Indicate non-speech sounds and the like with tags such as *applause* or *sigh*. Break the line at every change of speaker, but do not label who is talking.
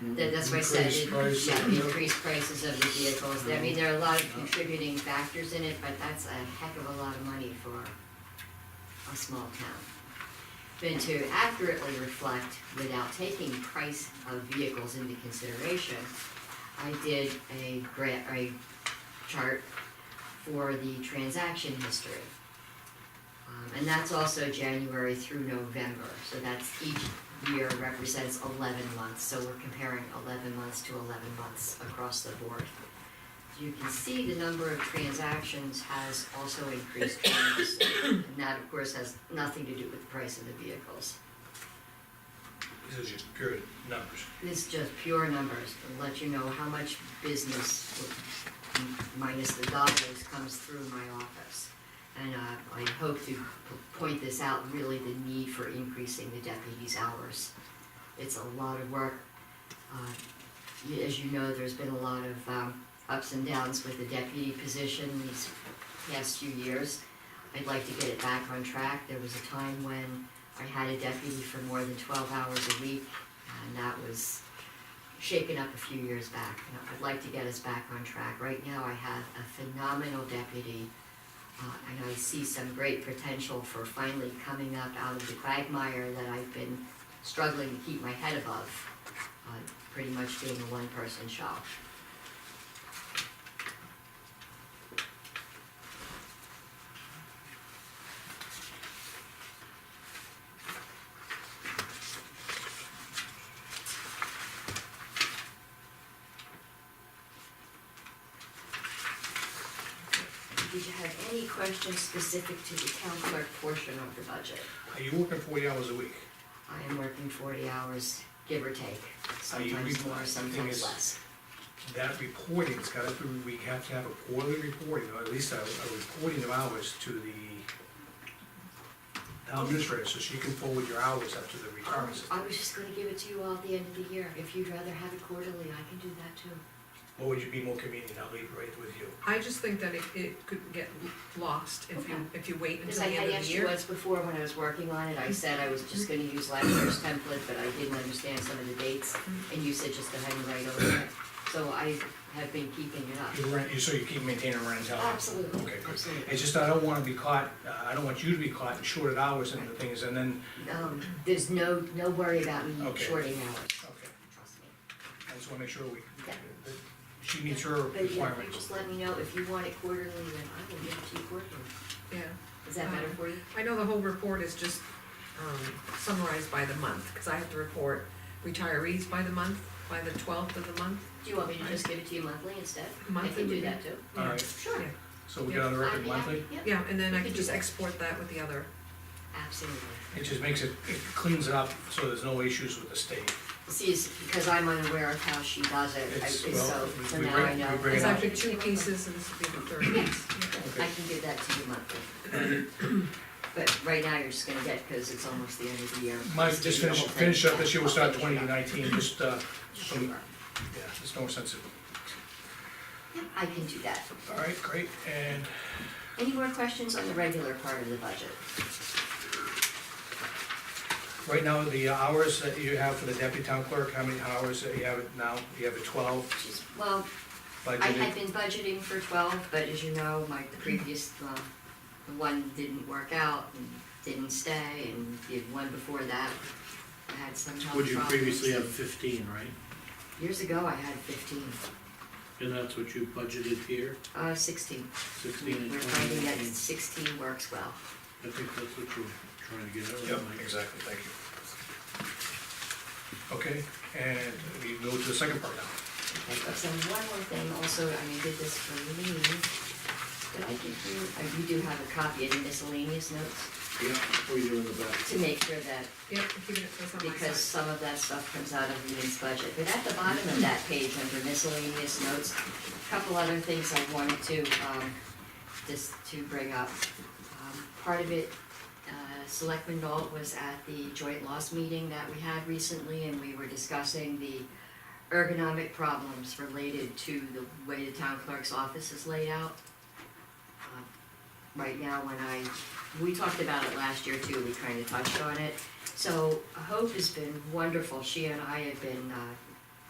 That- That's why I said,
Increased Mm-hmm. prices,
yeah,
yeah.
increased prices of the vehicles, I mean, there are a lot of contributing factors in it, but that's a heck of a lot of money for a small town. Then to accurately reflect, without taking price of vehicles into consideration, I did a gra- a chart for the transaction history. Um, and that's also January through November, so that's each year represents eleven months, so we're comparing eleven months to eleven months across the board. You can see the number of transactions has also increased tremendously, and that of course has nothing to do with the price of the vehicles.
These are just pure numbers.
It's just pure numbers, to let you know how much business, m- minus the dollars, comes through my office. And uh, I hope to p- point this out, really the need for increasing the deputies' hours. It's a lot of work. Uh, y- As you know, there's been a lot of um, ups and downs with the deputy position these past few years. I'd like to get it back on track. There was a time when I had a deputy for more than twelve hours a week, and that was shaken up a few years back. And I'd like to get us back on track. Right now, I have a phenomenal deputy, uh, and I see some great potential for finally coming up out of the quagmire that I've been struggling to keep my head above, uh, pretty much being a one-person shop. Did you have any questions specific to the town clerk portion of the budget?
Are you working forty hours a week?
I am working forty hours, give or take,
Are you
sometimes
required-
more,
the thing
sometimes
is-
less.
That reporting's gotta be, we have to have a quarterly reporting, or at least a, a reporting of hours to the town administrator, so she can forward your hours up to the retirement system.
I was just gonna give it to you all at the end of the year, if you'd rather have it quarterly, I can do that too.
What would you be more convenient, I'll leave it right with you.
I just think that it, it could get lost if you, if you wait
Because I
until the
had
end of
asked
the
you
year.
once before when I was working on it, I said I was just gonna use last year's template, but I didn't understand some of the dates, and you said just go ahead and write over it. So I have been keeping it up.
You rent, you, so you keep maintaining rent health?
Absolutely,
Okay, good.
absolutely.
It's just I don't wanna be caught, uh, I don't want you to be caught in shorted hours and the things, and then,
Um, there's no, no worry about me
Okay.
shorting hours,
okay,
trust me.
I just wanna make sure we,
Yeah.
she meets her
But if you
requirements.
just let me know if you want it quarterly, then I will give it to you quarterly.
Yeah,
Is that better for you?
I know the whole report is just um, summarized by the month, because I have to report retirees by the month, by the twelfth of the month.
Do you want me to just give it to you monthly instead? I
Monthly
can do
would be-
that too.
All right,
Sure.
Yeah.
so we got on the
I'd
record
be
monthly?
happy, Yep,
Yeah, and then
We
I
could
could
do
just
that.
export that with the other,
absolutely.
It just makes it, it cleans it up, so there's no issues with the state.
See, it's because I'm unaware of how she does it, I-
It's-
it's
well,
so, so
we
now
bring-
I know.
we bring it
it's
up.
actually two pieces, and this would be the third piece.
I can give that to you monthly. *clears throat* But right now, you're just gonna get, because it's almost the end of the year.
Mike, just finish, finish up this year, we'll start twenty
Sure.
nineteen, just, uh, some, yeah, there's no sense of,
Yep, I can do that.
all right, great, and
Any more questions on the regular part of the budget?
right now, the hours that you have for the deputy town clerk, how many hours that you have it now? You have it twelve
She's, well, I had
budgeted?
been budgeting for twelve, but as you know, my previous, uh, the one didn't work out and didn't stay, and the one before that, I had some health
Would you
problems.
previously have fifteen, right?
Years ago, I had fifteen,
And that's what you budgeted here,
uh, sixteen.
sixteen and
We're
twenty
finding that
nineteen?
sixteen works well.
I think that's what you're trying to get at,
Yep,
right, Mike?
exactly, thank you. Okay, and we go to the second part now.
So one more thing also, I mean, did this for me. Did I give you, uh, you do have a copy of the miscellaneous notes
Yeah, what are you doing in the back?
to make sure that
Yeah, I'm keeping it just on my
because
side.
some of that stuff comes out of Lean's budget. But at the bottom of that page, under miscellaneous notes, a couple other things I wanted to, um, just to bring up. Um, Part of it, uh, Selectman Nolt was at the joint loss meeting that we had recently, and we were discussing the ergonomic problems related to the way the town clerk's office is laid out. Uh, Right now, when I, we talked about it last year too, we kind of touched on it. So Hope has been wonderful. She and I have been uh,